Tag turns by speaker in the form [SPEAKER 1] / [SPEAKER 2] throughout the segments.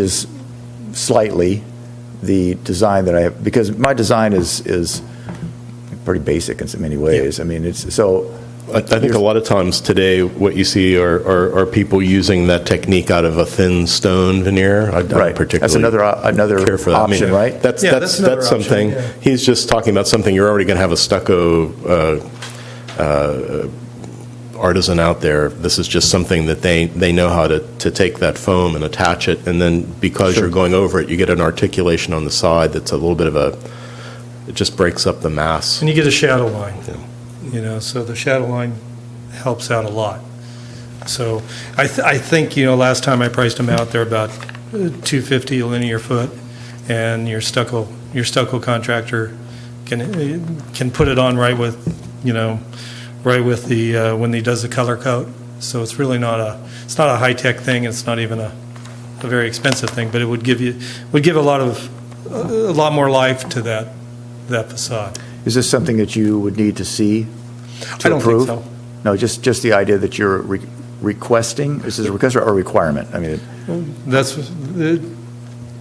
[SPEAKER 1] is slightly the design that I have, because my design is, is pretty basic in so many ways. I mean, it's, so.
[SPEAKER 2] I I think a lot of times today, what you see are, are, are people using that technique out of a thin stone veneer. I
[SPEAKER 1] Right.
[SPEAKER 2] don't
[SPEAKER 1] That's another,
[SPEAKER 2] particularly
[SPEAKER 1] o- another
[SPEAKER 2] care for that. I mean,
[SPEAKER 1] option, right?
[SPEAKER 2] That's,
[SPEAKER 3] Yeah,
[SPEAKER 2] that's,
[SPEAKER 3] that's another
[SPEAKER 2] that's
[SPEAKER 3] option,
[SPEAKER 2] something,
[SPEAKER 3] yeah.
[SPEAKER 2] he's just talking about something, you're already going to have a stucco uh, uh, artisan out there. This is just something that they, they know how to, to take that foam and attach it, and then because you're going over it, you get an articulation on the side that's a little bit of a, it just breaks up the mass.
[SPEAKER 3] And you get a shadow line, you know, so the shadow line helps out a lot. So I, th- I think, you know, last time I priced them out, they're about uh, 250 a linear foot, and your stucco, your stucco contractor can, uh, can put it on right with, you know, right with the, uh, when he does the color coat. So it's really not a, it's not a high-tech thing, it's not even a, a very expensive thing, but it would give you, would give a lot of, a lot more life to that, that facade.
[SPEAKER 1] Is this something that you would need to see
[SPEAKER 3] I
[SPEAKER 1] to
[SPEAKER 3] don't
[SPEAKER 1] approve?
[SPEAKER 3] think so.
[SPEAKER 1] No, just, just the idea that you're re- requesting, is this a request or a requirement? I mean,
[SPEAKER 3] That's, uh,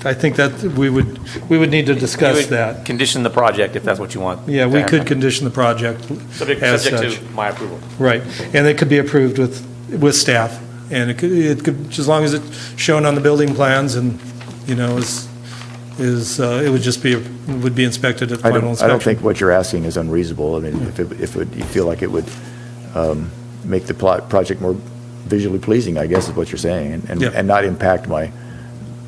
[SPEAKER 3] I think that we would, we would need to
[SPEAKER 4] You
[SPEAKER 3] discuss
[SPEAKER 4] would
[SPEAKER 3] that.
[SPEAKER 4] Condition the project if that's what you want.
[SPEAKER 3] Yeah,
[SPEAKER 4] to
[SPEAKER 3] we
[SPEAKER 4] happen.
[SPEAKER 3] could condition the project
[SPEAKER 4] Subject
[SPEAKER 3] as
[SPEAKER 4] subject
[SPEAKER 3] such.
[SPEAKER 4] to my approval.
[SPEAKER 3] Right, and it could be approved with, with staff, and it could, it could, as long as it's shown on the building plans and, you know, is, is, uh, it would just be, would be inspected at
[SPEAKER 1] I don't, I
[SPEAKER 3] final
[SPEAKER 1] don't
[SPEAKER 3] inspection. Hmm.
[SPEAKER 1] think what you're asking is unreasonable. I mean, if it, if it- you feel like it would um, make the plot, project more visually pleasing, I guess is what you're saying, and- and,
[SPEAKER 3] Yeah.
[SPEAKER 1] and not impact my,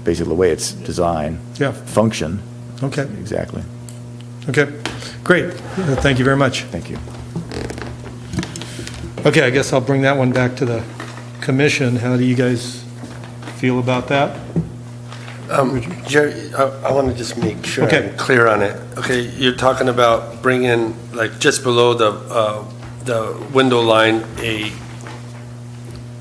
[SPEAKER 1] basically the way it's designed.
[SPEAKER 3] Yeah.
[SPEAKER 1] Function,
[SPEAKER 3] Okay,
[SPEAKER 1] exactly.
[SPEAKER 3] okay, great, Uh, thank you very much.
[SPEAKER 1] Thank you.
[SPEAKER 3] Okay, I guess I'll bring that one back to the commission, how do you guys feel about that?
[SPEAKER 5] Jerry, I want to just make sure
[SPEAKER 3] Okay.
[SPEAKER 5] I'm clear on it. Okay, you're talking about bringing, like, just below the, uh, the window line, a,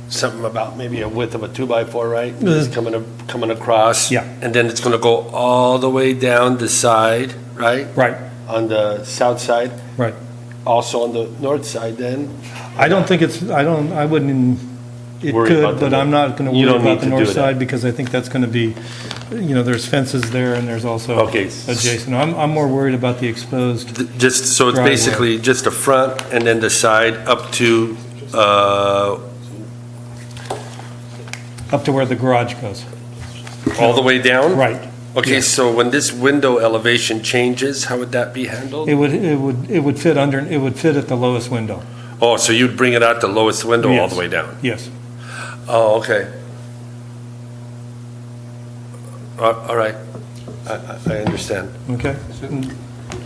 [SPEAKER 5] something about maybe a width of a two-by-four, right? It's coming, a- coming across.
[SPEAKER 3] Mm-hmm. Yeah.
[SPEAKER 5] And then it's going to go all the way down the side, right?
[SPEAKER 3] Right,
[SPEAKER 5] On the south side,
[SPEAKER 3] right.
[SPEAKER 5] also on the north side then?
[SPEAKER 3] I don't think it's, I don't, I wouldn't, it
[SPEAKER 5] Worry about
[SPEAKER 3] could,
[SPEAKER 5] the
[SPEAKER 3] but
[SPEAKER 5] north.
[SPEAKER 3] I'm not going to
[SPEAKER 5] You
[SPEAKER 3] worry
[SPEAKER 5] don't
[SPEAKER 3] about
[SPEAKER 5] need
[SPEAKER 3] the
[SPEAKER 5] to
[SPEAKER 3] north
[SPEAKER 5] do that.
[SPEAKER 3] side because I think that's going to be, you know, there's fences there and there's also
[SPEAKER 5] Okay.
[SPEAKER 3] adjacent. I'm, I'm more worried about the exposed.
[SPEAKER 5] Th- Just, so it's
[SPEAKER 3] Driveway.
[SPEAKER 5] basically just the front and then the side up to, uh,
[SPEAKER 3] Up to where the garage goes.
[SPEAKER 5] all the way down?
[SPEAKER 3] Right.
[SPEAKER 5] Okay,
[SPEAKER 3] Yes.
[SPEAKER 5] so when this window elevation changes, how would that be handled?
[SPEAKER 3] It would, it would, it would fit under, it would fit at the lowest window.
[SPEAKER 5] Oh, so you'd bring it out the lowest window all
[SPEAKER 3] Yes.
[SPEAKER 5] the way down?
[SPEAKER 3] Yes.
[SPEAKER 5] Oh, okay. Uh, All right, I- I I understand.
[SPEAKER 3] Okay.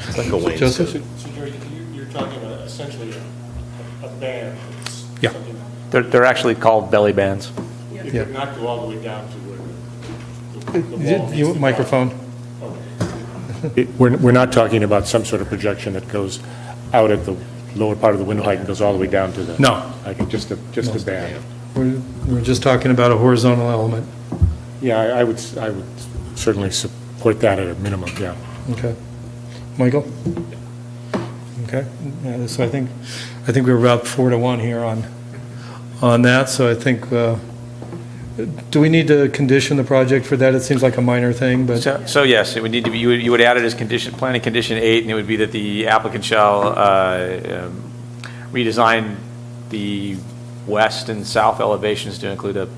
[SPEAKER 2] It's like a wainscot.
[SPEAKER 3] Joseph?
[SPEAKER 6] So Jerry, you- you're talking about essentially a a band. It's
[SPEAKER 3] Yeah.
[SPEAKER 6] something that-
[SPEAKER 4] They're, they're actually called belly bands.
[SPEAKER 6] It
[SPEAKER 3] Yeah.
[SPEAKER 6] could not go all the way down to where the- the the wall.
[SPEAKER 3] You- Microphone.
[SPEAKER 7] It- We're, we're not talking about some sort of projection that goes out at the lower part of the window height and goes all the way down to the...
[SPEAKER 3] No.
[SPEAKER 7] Like, just the, just the band.
[SPEAKER 3] We're, we're just talking about a horizontal element.
[SPEAKER 7] Yeah, I I would, s- I would certainly support that at a minimum, yeah.
[SPEAKER 3] Okay. Michael? Okay, Yeah, so I think, I think we were about four to one here on, on that, so I think, uh, do we need to condition the project for that? It seems like a minor thing, but,
[SPEAKER 4] So, so yes, it would need to be, you would, you would add it as condition, planning condition eight, and it would be that the applicant shall, uh, um, redesign the west and south elevations to include a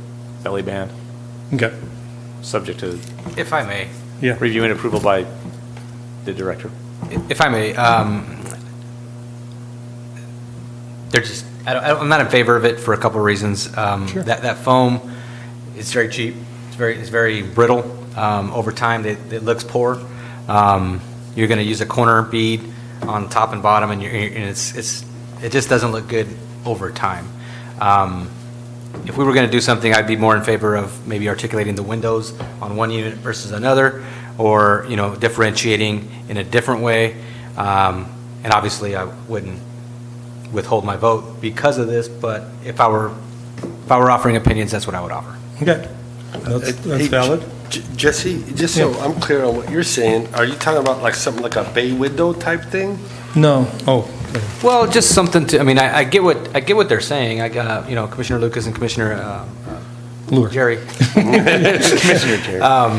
[SPEAKER 4] belly band,
[SPEAKER 3] okay,
[SPEAKER 4] subject to
[SPEAKER 8] If I may,
[SPEAKER 3] yeah.
[SPEAKER 4] review and approval by the director.
[SPEAKER 8] if I may, um, they're just, I don't, I don't- I'm not in favor of it for a couple of reasons. Um, That, that foam is very cheap, it's very, it's very brittle. Um, Over time, it, it looks poor. Um, You're going to use a corner bead on top and bottom, and you're, and it's, it's, it just doesn't look good over time. Um, if we were going to do something, I'd be more in favor of maybe articulating the windows on one unit versus another, or, you know, differentiating in a different way. Um, And obviously, I wouldn't withhold my vote because of this, but if I were, if I were offering opinions, that's what I would offer.
[SPEAKER 3] Okay, that's, that's
[SPEAKER 5] Hey,
[SPEAKER 3] valid.
[SPEAKER 5] J- Jesse, just so
[SPEAKER 3] Yeah.
[SPEAKER 5] I'm clear on what you're saying, are you talking about like something like a bay window type thing?
[SPEAKER 3] No, oh,
[SPEAKER 8] Well, just something to, I mean, I, I get what, I get what they're saying. I, got, you know, Commissioner Lucas and Commissioner uh, uh,
[SPEAKER 3] Lure.
[SPEAKER 8] Jerry.